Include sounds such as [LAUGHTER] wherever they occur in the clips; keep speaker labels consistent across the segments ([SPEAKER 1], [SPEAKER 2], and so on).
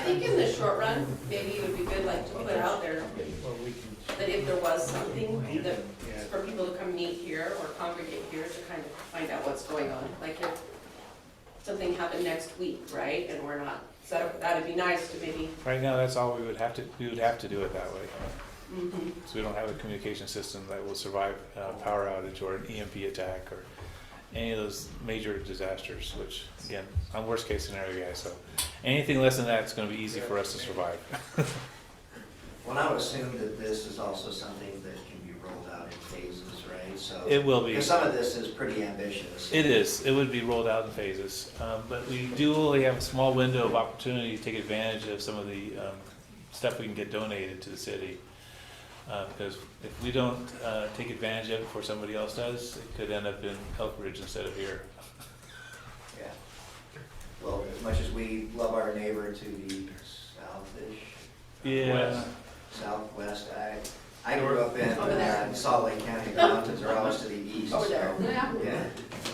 [SPEAKER 1] think in the short run, maybe it would be good like to put out there
[SPEAKER 2] Well, we can.
[SPEAKER 1] that if there was something that,
[SPEAKER 2] Yeah.
[SPEAKER 1] for people to come meet here or congregate here to kind of find out what's going on, like if something happened next week, right, and we're not, set up that'd be nice to maybe,
[SPEAKER 2] Right now, that's all we would have to, we would have to do it that way.
[SPEAKER 1] mhm,
[SPEAKER 2] So we don't have a communication system that will survive a power outage or an EMP attack or any of those major disasters, which, again, I'm worst case scenario guy, so anything less than that is gonna be easy for us to survive.
[SPEAKER 3] Well, I would assume that this is also something that can be rolled out in phases, right? So,
[SPEAKER 2] It will be.
[SPEAKER 3] because some of this is pretty ambitious.
[SPEAKER 2] It is. It would be rolled out in phases. Um, But we do only have a small window of opportunity to take advantage of some of the um, stuff we can get donated to the city. Uh, Because if we don't uh, take advantage of it before somebody else does, it could end up in Elk Ridge instead of here.
[SPEAKER 3] Yeah. Well, as much as we love our neighbor to the southish.
[SPEAKER 2] Yeah.
[SPEAKER 3] Southwest, I, I grew up in
[SPEAKER 1] Over there.
[SPEAKER 3] uh, Salt Lake County, the mountains are always to the east,
[SPEAKER 1] over there.
[SPEAKER 3] so. Yeah,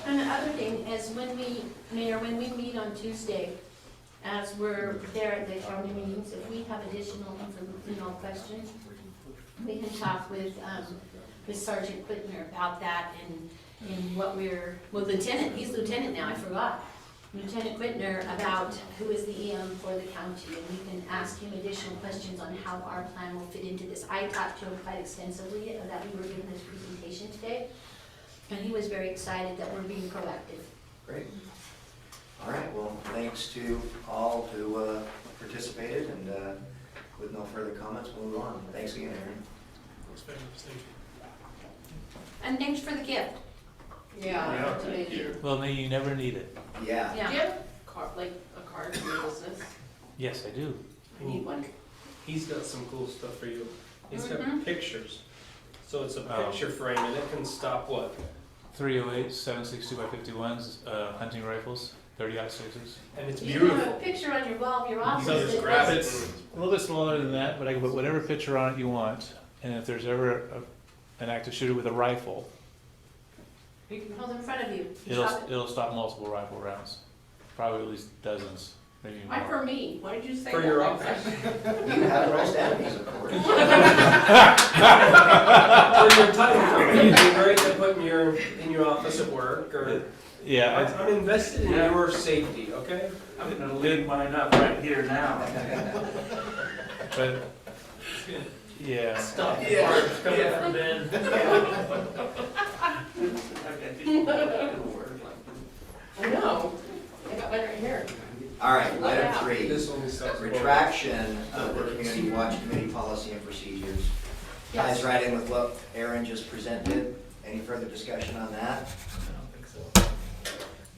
[SPEAKER 4] And the other thing is when we, Mayor, when we meet on Tuesday, as we're there at the county meetings, if we have additional, infor- you know, questions, we can talk with, um, with Sergeant Quitner about that and, and what we're, well, Lieutenant, he's Lieutenant now, I forgot. Lieutenant Quitner about who is the EM for the county, and we can ask him additional questions on how our plan will fit into this. I talked to him quite extensively uh, that we were given this presentation today. And he was very excited that we're being proactive.
[SPEAKER 3] great. All right, well, thanks to all who uh, participated, and uh, with no further comments, we'll move on. Thanks again, Aaron.
[SPEAKER 4] And thanks for the gift.
[SPEAKER 1] Yeah.
[SPEAKER 5] Thank you.
[SPEAKER 2] Well, may you never need it.
[SPEAKER 3] Yeah.
[SPEAKER 1] Do you have car, like a card for your business?
[SPEAKER 2] Yes, I do.
[SPEAKER 1] I need one.
[SPEAKER 6] He's got some cool stuff for you. He's
[SPEAKER 4] Mhm.
[SPEAKER 6] got pictures. So it's a
[SPEAKER 2] Oh.
[SPEAKER 6] picture frame and it can stop what?
[SPEAKER 2] 308, 762 by 51s, uh, hunting rifles, 30 sixes.
[SPEAKER 6] And it's
[SPEAKER 4] You can have a
[SPEAKER 6] beautiful.
[SPEAKER 4] picture on your wall of your
[SPEAKER 6] You
[SPEAKER 4] office.
[SPEAKER 6] can just
[SPEAKER 4] that
[SPEAKER 6] grab
[SPEAKER 4] was-
[SPEAKER 6] it. [LAUGHS]
[SPEAKER 2] A little bit smaller than that, but I can put whatever picture on it you want. And if there's ever a- an active shooter with a rifle,
[SPEAKER 4] You can hold in front of you.
[SPEAKER 2] It'll,
[SPEAKER 4] Drop it.
[SPEAKER 2] it'll stop multiple rifle rounds, probably at least dozens, maybe
[SPEAKER 1] Why
[SPEAKER 2] more.
[SPEAKER 1] for me? Why did you say that?
[SPEAKER 6] For your
[SPEAKER 1] like
[SPEAKER 6] office.
[SPEAKER 1] that?
[SPEAKER 3] You have the most enemies, of course.
[SPEAKER 6] and your title company. It'd be great to put in your, in your office at work or. I'm
[SPEAKER 2] Yeah,
[SPEAKER 6] I'm invested in your safety, okay?
[SPEAKER 5] I'm gonna leave mine up right here now.
[SPEAKER 2] I- but, yeah,
[SPEAKER 6] Stop the parts coming from Ben.
[SPEAKER 1] [LAUGHS] I know. I got one right here.
[SPEAKER 3] All right, item three,
[SPEAKER 6] This only stops.
[SPEAKER 3] retraction of the Community Watch Committee policy and procedures. Ties right in with what Aaron just presented. Any further discussion on that?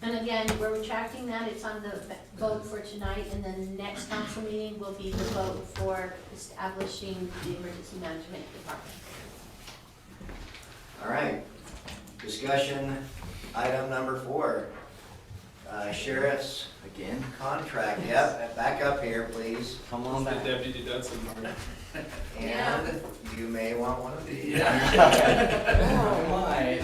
[SPEAKER 4] And again, we're retracting that. It's on the vote for tonight, and then the next council meeting will be the vote for establishing the emergency management department.
[SPEAKER 3] All right, discussion, item number four. Uh, Sheriff's
[SPEAKER 5] Again?
[SPEAKER 3] contract, yep, back up here, please.
[SPEAKER 5] Come on
[SPEAKER 6] The
[SPEAKER 5] back.
[SPEAKER 6] deputy Dudson.
[SPEAKER 3] And you may want one of these.
[SPEAKER 2] [LAUGHS]
[SPEAKER 5] Oh, my.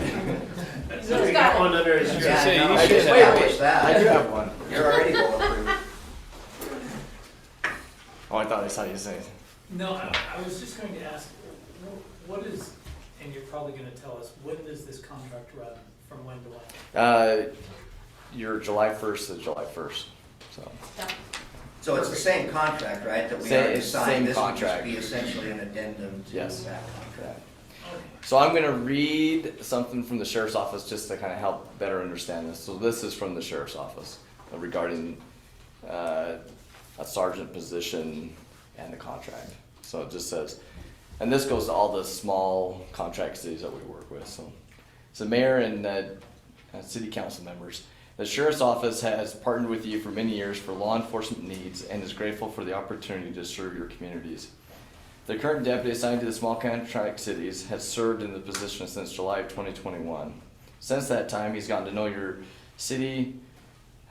[SPEAKER 1] He's got it.
[SPEAKER 6] One under his
[SPEAKER 2] shirt.
[SPEAKER 6] shirt.
[SPEAKER 2] Yeah, say,
[SPEAKER 3] Yeah, no,
[SPEAKER 2] you
[SPEAKER 3] I
[SPEAKER 2] should
[SPEAKER 3] just
[SPEAKER 2] have-
[SPEAKER 3] wish
[SPEAKER 5] I
[SPEAKER 3] that.
[SPEAKER 5] do have one.
[SPEAKER 3] You're already bulletproof.
[SPEAKER 5] Oh, I thought I saw you say it.
[SPEAKER 7] No, I, I was just going to ask, wh- what is, and you're probably gonna tell us, when does this contract run, from when to when?
[SPEAKER 5] Uh, you're July 1st to July 1st. So,
[SPEAKER 4] So,
[SPEAKER 3] So it's the same contract, right, that we
[SPEAKER 5] Same-
[SPEAKER 3] already
[SPEAKER 5] it's
[SPEAKER 3] signed?
[SPEAKER 5] same
[SPEAKER 3] This would just
[SPEAKER 5] contract.
[SPEAKER 3] be essentially an addendum to
[SPEAKER 5] Yes.
[SPEAKER 3] that contract.
[SPEAKER 5] so I'm going to read something from the sheriff's office just to kind of help better understand this. So, this is from the sheriff's office regarding uh, a sergeant position and the contract. So, it just says, and this goes to all the small contract cities that we work with. So, So mayor and uh, uh, city council members, the sheriff's office has partnered with you for many years for law enforcement needs and is grateful for the opportunity to serve your communities. The current deputy assigned to the small contract cities has served in the position since July of 2021. Since that time, he's gotten to know your city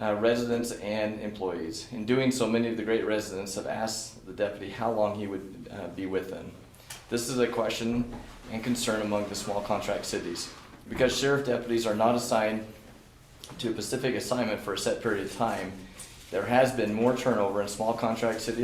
[SPEAKER 5] uh, residents and employees. In doing so, many of the great residents have asked the deputy how long he would uh, be with them. This is a question and concern among the small contract cities. Because sheriff deputies are not assigned to a specific assignment for a set period of time, there has been more turnover in small contract cities.